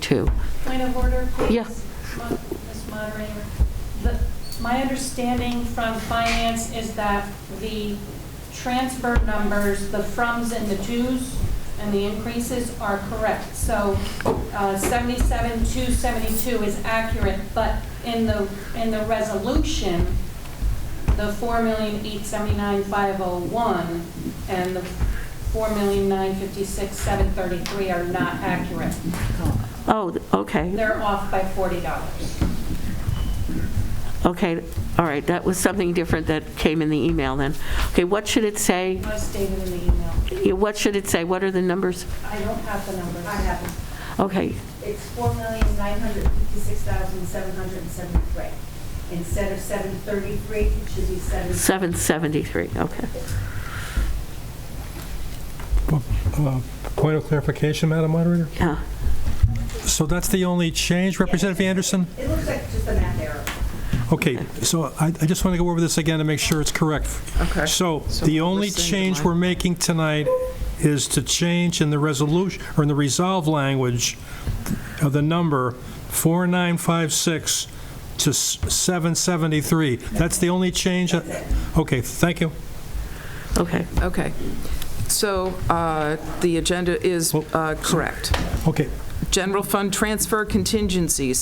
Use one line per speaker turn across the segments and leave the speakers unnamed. too.
Point of order, please?
Yeah.
Mo- Ms. Moderator, the, my understanding from finance is that the transfer numbers, the froms and the twos and the increases are correct. So uh, 77, 272 is accurate, but in the, in the resolution, the 4,879,501 and the 4,956,733 are not accurate.
Oh, okay,
They're off by forty dollars.
okay, all right, that was something different that came in the email then. Okay, what should it say?
I stated in the email.
Yeah, What should it say? What are the numbers?
I don't have the numbers.
I have,
Okay,
it's four million, nine hundred fifty-six thousand, seven hundred and seventy-three. Instead of seven thirty-three, it should be seven.
773, okay.
Uh, Point of clarification, Madam Moderator?
Yeah,
So that's the only change, Representative Anderson?
It looks like just a math error.
Okay, so I I just want to go over this again to make sure it's correct.
Okay.
So
So
the
we're
only
listening to
change
mine.
we're making tonight is to change in the resolution, or in the resolve language of the number 4956 to s- 773. That's the only change? Okay, thank you.
okay.
Okay. So uh, the agenda is uh, correct.
Okay,
General fund transfer contingency,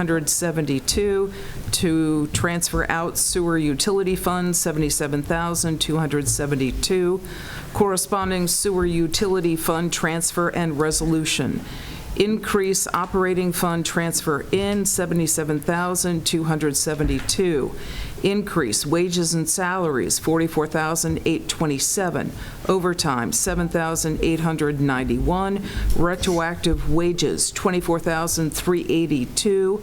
77,272. To transfer out sewer utility fund, 77,272. Corresponding sewer utility fund transfer and resolution. Increase operating fund transfer in, 77,272. Increase wages and salaries, 44,827. Overtime, 7,891. Retroactive wages, 24,382.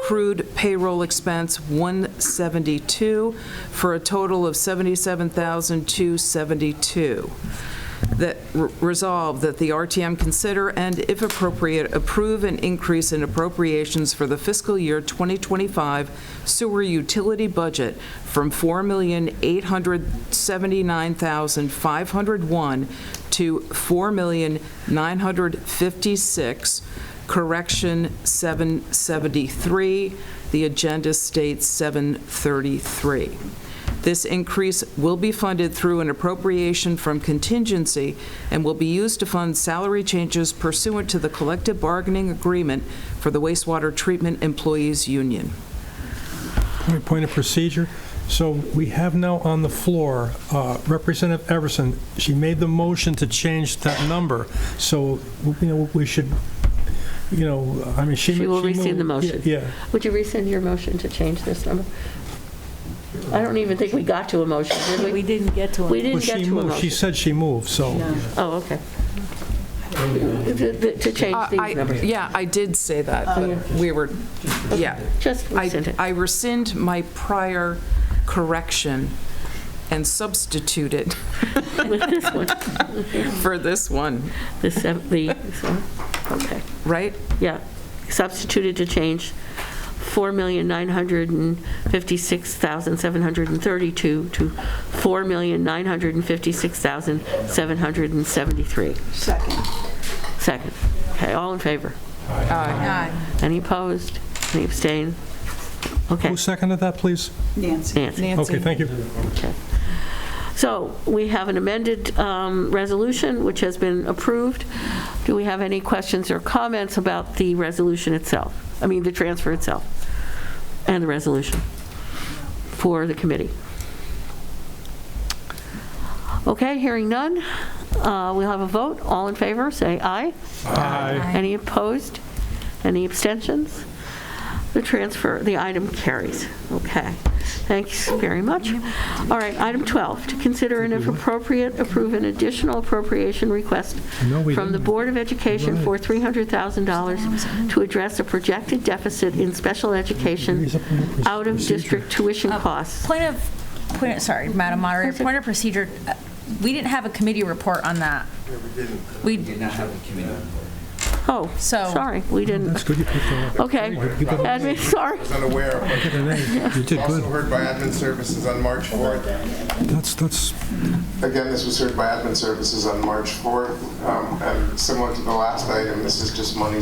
Accrued payroll expense, 172, for a total of 77,272 that re- resolve that the RTM consider and, if appropriate, approve an increase in appropriations for the fiscal year 2025 sewer utility budget from $4,879,501 to $4,956, correction 773. The agenda states 733. This increase will be funded through an appropriation from contingency and will be used to fund salary changes pursuant to the collective bargaining agreement for the wastewater treatment employees union.
All right, Point of procedure. So we have now on the floor uh, Representative Everson. She made the motion to change that number. So, you know, we should, you know, I mean, she...
She will
moved-
rescind the motion.
Yeah.
Would you rescind your motion to change this number? I don't even think we got to a motion, did
We
we?
didn't get to
We
Well,
it.
didn't
she
get to a
moved. She
motion.
said she moved, so...
Oh, okay. To to change
Uh, I-
these numbers. Oh,
Yeah, I did say that, but we were, yeah.
Just rescind
I
it.
I rescind my prior correction and substitute it
With this one,
for this one,
the, sev- the, this one. okay.
right?
Yeah, substituted to change 4,956,732 to 4,956,773.
Second.
Second. Okay, all in favor?
Aye.
Any opposed? Any abstain? Okay,
Who seconded that, please?
Nancy.
Okay,
Nancy?
thank you.
So we have an amended um, resolution, which has been approved. Do we have any questions or comments about the resolution itself? I mean, the transfer itself and the resolution for the committee? Okay, hearing none, uh, we'll have a vote. All in favor, say aye.
Aye.
Any opposed? Any abstentions? The transfer, the item carries. Okay. Thanks very much. All right, item 12, to consider and if appropriate, approve an additional appropriation request
No, we
from the
didn't.
Board of Education for $300,000 to address a projected deficit in special education
Raise up the procedure.
out-of-district tuition costs.
Point of, point, sorry, Madam Moderator, point of procedure, uh, we didn't have a committee report on that. We,
did not have a committee report.
Oh,
So-
sorry, we didn't,
That's good you picked that up.
okay.
You picked up-
Admin, sorry.
was unaware of what
Oh.
You did
also
good.
heard by admin services on March 4th.
That's, that's,
Again, this was heard by admin services on March 4th. Um, And similar to the last item, this is just money